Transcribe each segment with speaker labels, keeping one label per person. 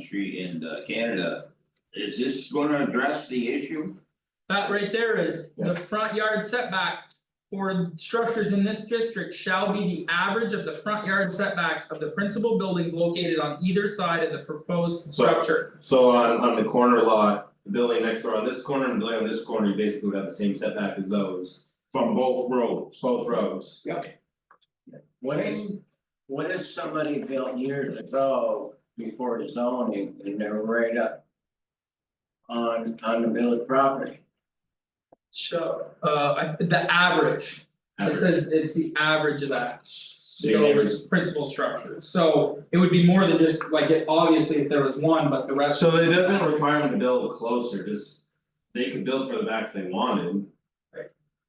Speaker 1: country in uh, Canada. Is this gonna address the issue?
Speaker 2: That right there is, the front yard setback for structures in this district shall be the average of the front yard setbacks of the principal buildings located on either side of the proposed
Speaker 3: So-
Speaker 2: structure.
Speaker 3: So on on the corner lot, the building next door on this corner and the building on this corner, you basically would have the same setback as those,
Speaker 1: From both roads.
Speaker 3: both rows.
Speaker 4: What is, what if somebody built years ago before the zoning and they're right up? On on the village property,
Speaker 2: So, uh, I- the average, it says it's the average of that.
Speaker 3: So your neighbors,
Speaker 2: those principal structures, so it would be more than just like it, obviously if there was one, but the rest.
Speaker 3: so it doesn't require them to build closer, just they could build further back if they wanted.
Speaker 2: Right.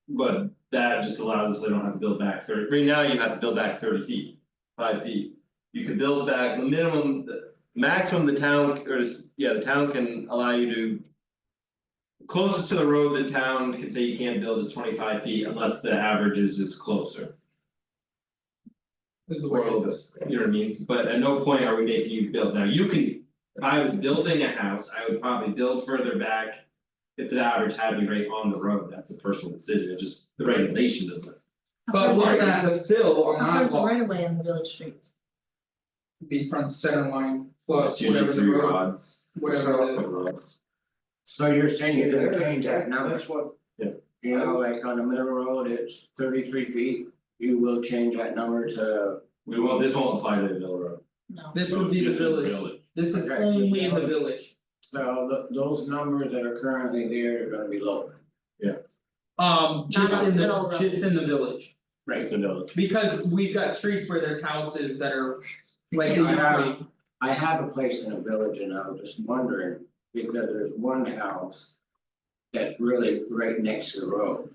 Speaker 3: But that just allows us, they don't have to build back thirty, right now you have to build back thirty feet, five feet. You could build back the minimum, the maximum the town or s- yeah, the town can allow you to. Closest to the road, the town can say you can't build is twenty five feet unless the average is is closer.
Speaker 2: Is the way it
Speaker 3: world,
Speaker 2: is.
Speaker 3: you know what I mean, but at no point are we making you build, now you can, if I was building a house, I would probably build further back. If the average had me right on the road, that's a personal decision, It just the regulation doesn't,
Speaker 2: But looking at the fill on
Speaker 5: How
Speaker 2: that
Speaker 5: far is the
Speaker 2: lot,
Speaker 5: right of way on the village streets?
Speaker 2: be from center line plus
Speaker 3: it's
Speaker 2: whatever
Speaker 3: usually
Speaker 2: the
Speaker 3: three
Speaker 2: road,
Speaker 3: rods.
Speaker 2: whatever the.
Speaker 3: couple rods.
Speaker 4: so you're saying you're gonna change that number?
Speaker 6: That's what,
Speaker 4: You know, like on the middle road, it's thirty three feet, you will change that number to.
Speaker 3: We won't, this won't apply to the middle road.
Speaker 5: No.
Speaker 2: This would be the
Speaker 3: It's just
Speaker 2: village, this is
Speaker 4: Okay.
Speaker 2: only in the village,
Speaker 4: So th- those numbers that are currently there are gonna be lower.
Speaker 2: um just
Speaker 5: Not on
Speaker 2: in
Speaker 5: middle
Speaker 2: the,
Speaker 5: road.
Speaker 2: just in the village,
Speaker 3: Right, the village.
Speaker 2: because we've got streets where there's houses that are. Like
Speaker 4: Yeah, I have-
Speaker 2: usually,
Speaker 4: I have a place in a village and I was just wondering, because there's one house. That's really right next to the road.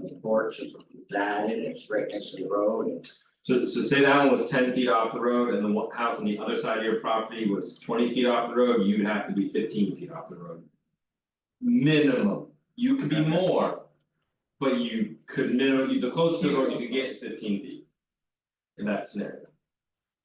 Speaker 4: The porch is that and it's right next to the road and
Speaker 3: So so say that one was ten feet off the road and the one house on the other side of your property was twenty feet off the road, you'd have to be fifteen feet off the road. Minimum, you could be more. But you could minimum, the closest to the road you could get is fifteen feet. In that scenario.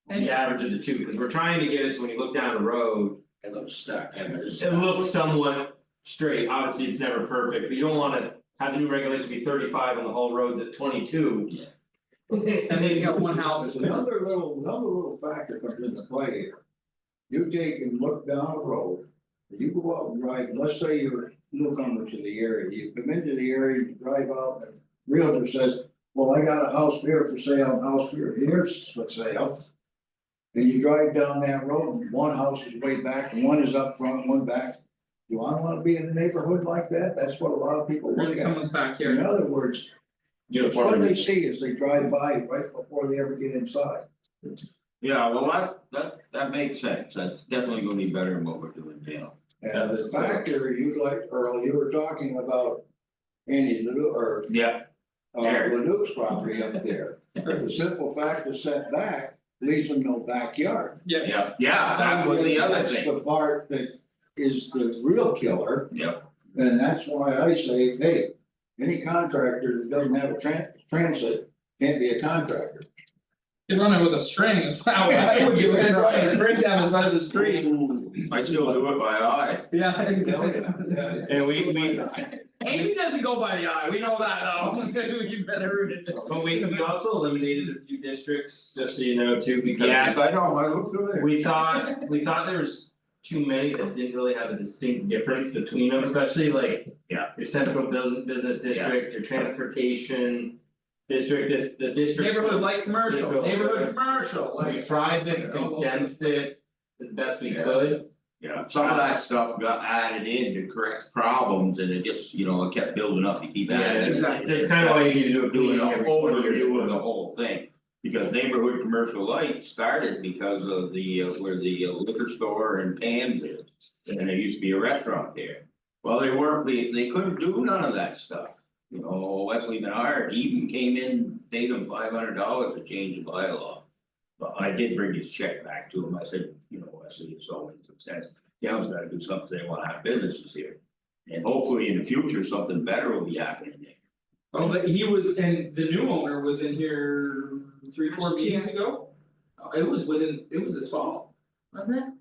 Speaker 2: And-
Speaker 3: The average of the two, because we're trying to get it so when you look down the road,
Speaker 4: it looks stuck and it's.
Speaker 3: it looks somewhat straight, obviously it's never perfect, but you don't wanna have the new regulation be thirty five and the whole road's at twenty two.
Speaker 2: and then you got one house that's
Speaker 6: another little, another little factor comes into play here. You take and look down a road, you go out and drive, let's say you're newcomer to the area, you come into the area, you drive out, and realtor says, well, I got a house here for sale, and a house here, here's for sale. And you drive down that road, and one house is way back, and one is up front, one back. Do I wanna be in a neighborhood like that? That's what a lot of people
Speaker 2: in
Speaker 6: look at.
Speaker 2: someone's backyard.
Speaker 6: In other words,
Speaker 3: Uniformly.
Speaker 6: What they see is they drive by right before they ever get inside.
Speaker 1: Yeah, well, that that that makes sense, that's definitely gonna be better than what we're doing now.
Speaker 6: And the factor you like, Earl, you were talking about Andy Ledoux, or
Speaker 1: Yeah.
Speaker 6: uh,
Speaker 1: There.
Speaker 6: Ledoux's property up there. The simple fact is setback leaves them no backyard.
Speaker 2: Yes.
Speaker 1: Yeah, yeah, that's what the other
Speaker 6: That's
Speaker 1: thing,
Speaker 6: the part that is the real killer.
Speaker 1: Yep.
Speaker 6: And that's why I say, hey, any contractor that doesn't have a tran- transit can't be a contractor.
Speaker 2: You run it with a string, it's wow, I would give it a try, and break down the side of the street,
Speaker 1: I still do it by eye.
Speaker 2: yeah. I think
Speaker 6: Tell you.
Speaker 2: that-
Speaker 3: And we we
Speaker 2: Amy doesn't go by the eye, we know that though, you better root it.
Speaker 3: But we we also eliminated a few districts, just so you know, too, because
Speaker 1: Yes, I know, I looked through there.
Speaker 3: we thought, we thought there was too many that didn't really have a distinct difference between them, especially like.
Speaker 1: Yeah.
Speaker 3: Your central business business district, your transportation district, this, the district.
Speaker 2: Neighborhood light commercial, neighborhood commercial,
Speaker 3: So
Speaker 2: like.
Speaker 3: we tried to condense it as best we could,
Speaker 1: Yeah, some of that stuff got added in to correct problems and it just, you know, it kept building up to keep
Speaker 3: yeah,
Speaker 1: adding.
Speaker 3: it's
Speaker 2: exactly.
Speaker 3: it's kind of why you need to do a
Speaker 1: doing
Speaker 3: cleaning
Speaker 1: an
Speaker 3: every four years.
Speaker 1: overview of the whole thing. Because neighborhood commercial light started because of the, uh, where the liquor store and Pam's is, and there used to be a restaurant there. Well, they weren't, they, they couldn't do none of that stuff, you know, Wesley Menard even came in, paid him five hundred dollars to change the bylaw. But I did bring his check back to him, I said, you know, Wesley, it's all in some sense, town's gotta do something, they wanna have businesses here. And hopefully in the future, something better will be happening there.
Speaker 2: Oh, but he was, and the new owner was in here three, four
Speaker 5: Last
Speaker 2: meetings ago? Uh, It was within, it was this fall,
Speaker 5: Wasn't it?